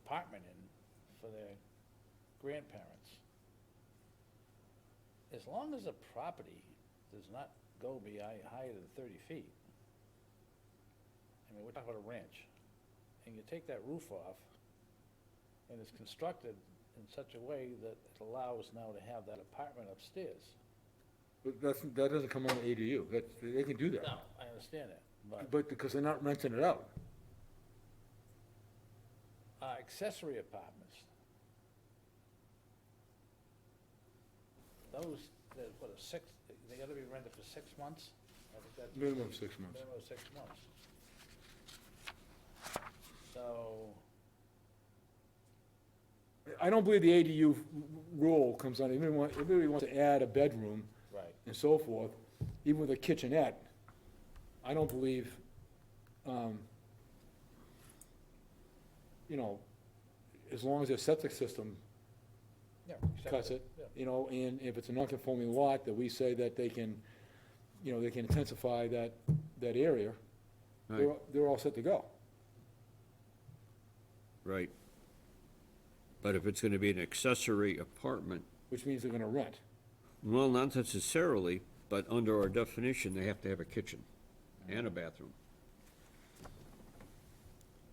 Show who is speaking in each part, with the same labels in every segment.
Speaker 1: apartment in for their grandparents. As long as the property does not go be higher than thirty feet, I mean, we're talking about a ranch, and you take that roof off, and it's constructed in such a way that it allows now to have that apartment upstairs.
Speaker 2: But that's, that doesn't come on the ADU, that, they can do that,
Speaker 1: No, I understand that, but.
Speaker 2: but because they're not renting it out.
Speaker 1: uh, accessory apartments. Those, that, what, a six, they gotta be rented for six months? I think that's-
Speaker 2: Minimum six months.
Speaker 1: Minimum of six months. So,
Speaker 2: I don't believe the ADU rule comes on, even want, everybody wants to add a bedroom
Speaker 1: right,
Speaker 2: and so forth, even with a kitchenette. I don't believe, um, you know, as long as their septic system
Speaker 1: yeah.
Speaker 2: cuts
Speaker 1: accessory,
Speaker 2: it,
Speaker 1: yeah.
Speaker 2: you know, and if it's a non-conforming lot, that we say that they can, you know, they can intensify that, that area, they're,
Speaker 3: Right,
Speaker 2: they're all set to go.
Speaker 3: right. But if it's gonna be an accessory apartment,
Speaker 2: which means they're gonna rent.
Speaker 3: well, not necessarily, but under our definition, they have to have a kitchen and a bathroom.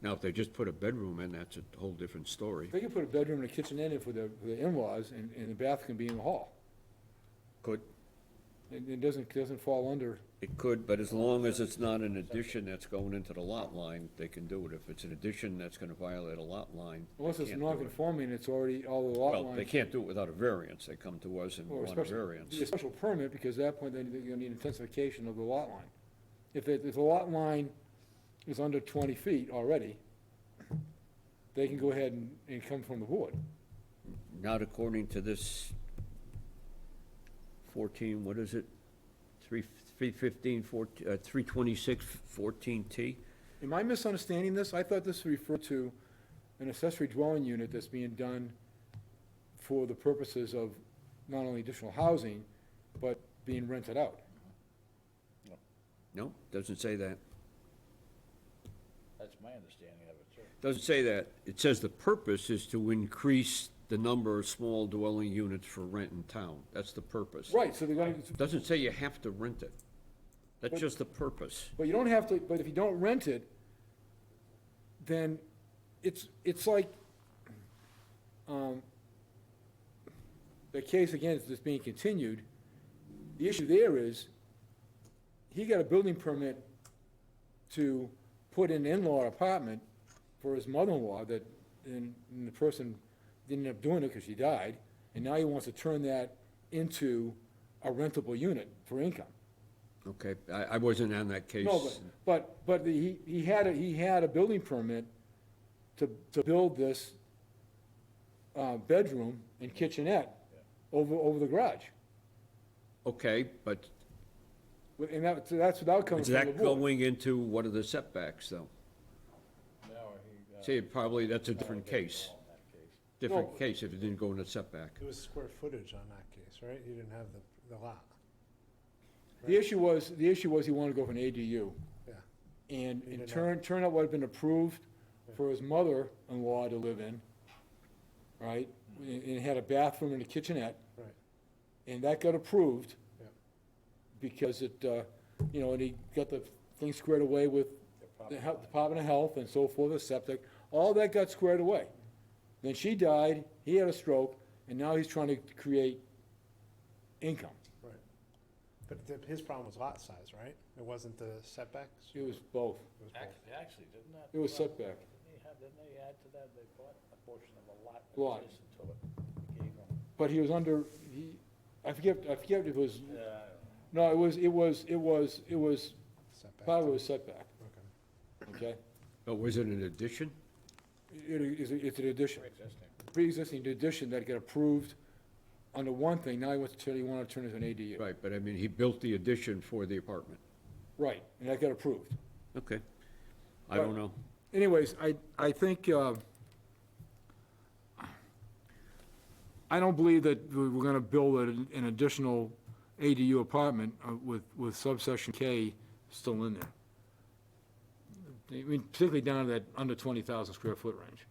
Speaker 3: Now, if they just put a bedroom in, that's a whole different story,
Speaker 2: They can put a bedroom and a kitchen in it for the, for the in-laws, and, and the bath can be in the hall.
Speaker 3: could,
Speaker 2: It, it doesn't, doesn't fall under,
Speaker 3: It could, but as long as it's not an addition that's going into the lot line, they can do it. If it's an addition that's gonna violate a lot line, they
Speaker 2: unless it's
Speaker 3: can't do it.
Speaker 2: non-conforming, it's already all the lot lines.
Speaker 3: Well, they can't do it without a variance. They come to us and
Speaker 2: or a
Speaker 3: want a
Speaker 2: special-
Speaker 3: variance.
Speaker 2: be A special permit, because at that point, then they're gonna need intensification of the lot line. If it, if the lot line is under twenty feet already, they can go ahead and, and come from the board.
Speaker 3: Not according to this fourteen, what is it? Three, three fifteen, fourteen, uh, three twenty-six, fourteen T?
Speaker 2: Am I misunderstanding this? I thought this referred to an accessory dwelling unit that's being done for the purposes of not only additional housing, but being rented out.
Speaker 3: No, doesn't say that.
Speaker 1: That's my understanding of it, too.
Speaker 3: Doesn't say that. It says the purpose is to increase the number of small dwelling units for rent in town. That's the purpose.
Speaker 2: Right, so they're gonna,
Speaker 3: Doesn't say you have to rent it. That's
Speaker 2: But-
Speaker 3: just the purpose.
Speaker 2: but you don't have to, but if you don't rent it, then it's, it's like, um, the case again is just being continued. The issue there is, he got a building permit to put an in-law apartment for his mother-in-law that, and, and the person didn't end up doing it because she died, and now he wants to turn that into a rentable unit for income.
Speaker 3: Okay, I, I wasn't on that case.
Speaker 2: No, but, but, but the- he, he had, a he had a building permit to, to build this, uh, bedroom and kitchenette over, over the garage.
Speaker 3: Okay, but
Speaker 2: With- And that, so that's without coming
Speaker 3: is
Speaker 2: from the
Speaker 3: that
Speaker 2: board.
Speaker 3: going into what are the setbacks, though?
Speaker 1: Now, he, uh,
Speaker 3: See, probably, that's a different
Speaker 1: didn't
Speaker 3: case,
Speaker 1: fall in that case.
Speaker 3: different
Speaker 2: No.
Speaker 3: case if it didn't go in a setback.
Speaker 4: It was square footage on that case, right? You didn't have the, the lot,
Speaker 2: The issue was, the issue was he wanted to go for an ADU
Speaker 4: yeah.
Speaker 2: and,
Speaker 4: He
Speaker 2: and
Speaker 4: did
Speaker 2: turn, turn out what had been approved for his mother-in-law to live in, right?
Speaker 3: Mm.
Speaker 2: And, and had a bathroom and a kitchenette.
Speaker 4: Right.
Speaker 2: And that got approved.
Speaker 4: Yep.
Speaker 2: Because it, uh, you know, and he got the thing squared away with the Health- Department of Health and so forth, the septic, all that got squared away. Then she died, he had a stroke, and now he's trying to create income.
Speaker 4: Right. But the, his problem was lot size, right? It wasn't the setbacks?
Speaker 2: It was both.
Speaker 4: It was both.
Speaker 1: Actually, actually, didn't that?
Speaker 2: It was
Speaker 1: uh,
Speaker 2: setback.
Speaker 1: Didn't they have, didn't they add to that, they bought a portion of a lot
Speaker 2: Lot.
Speaker 1: adjacent to it? They gave them,
Speaker 2: But he was under, he, I forget, I forget if it was,
Speaker 1: uh,
Speaker 2: no, it was, it was, it was, it was,
Speaker 4: Setback.
Speaker 2: part of it was setback,
Speaker 4: Okay.
Speaker 2: okay?
Speaker 3: But was it an addition?
Speaker 2: It is, it's an addition,
Speaker 1: pre-existing.
Speaker 2: pre-existing addition that got approved under one thing, now he wants to turn, he wanted to turn it into an ADU.
Speaker 3: Right, but I mean, he built the addition for the apartment.
Speaker 2: Right, and that got approved.
Speaker 3: Okay. I
Speaker 2: Right.
Speaker 3: don't know.
Speaker 2: anyways, I, I think, uh, I don't believe that we- we're gonna build an an additional ADU apartment uh, with, with subsection K still in there. I mean, particularly down to that under twenty thousand square foot range.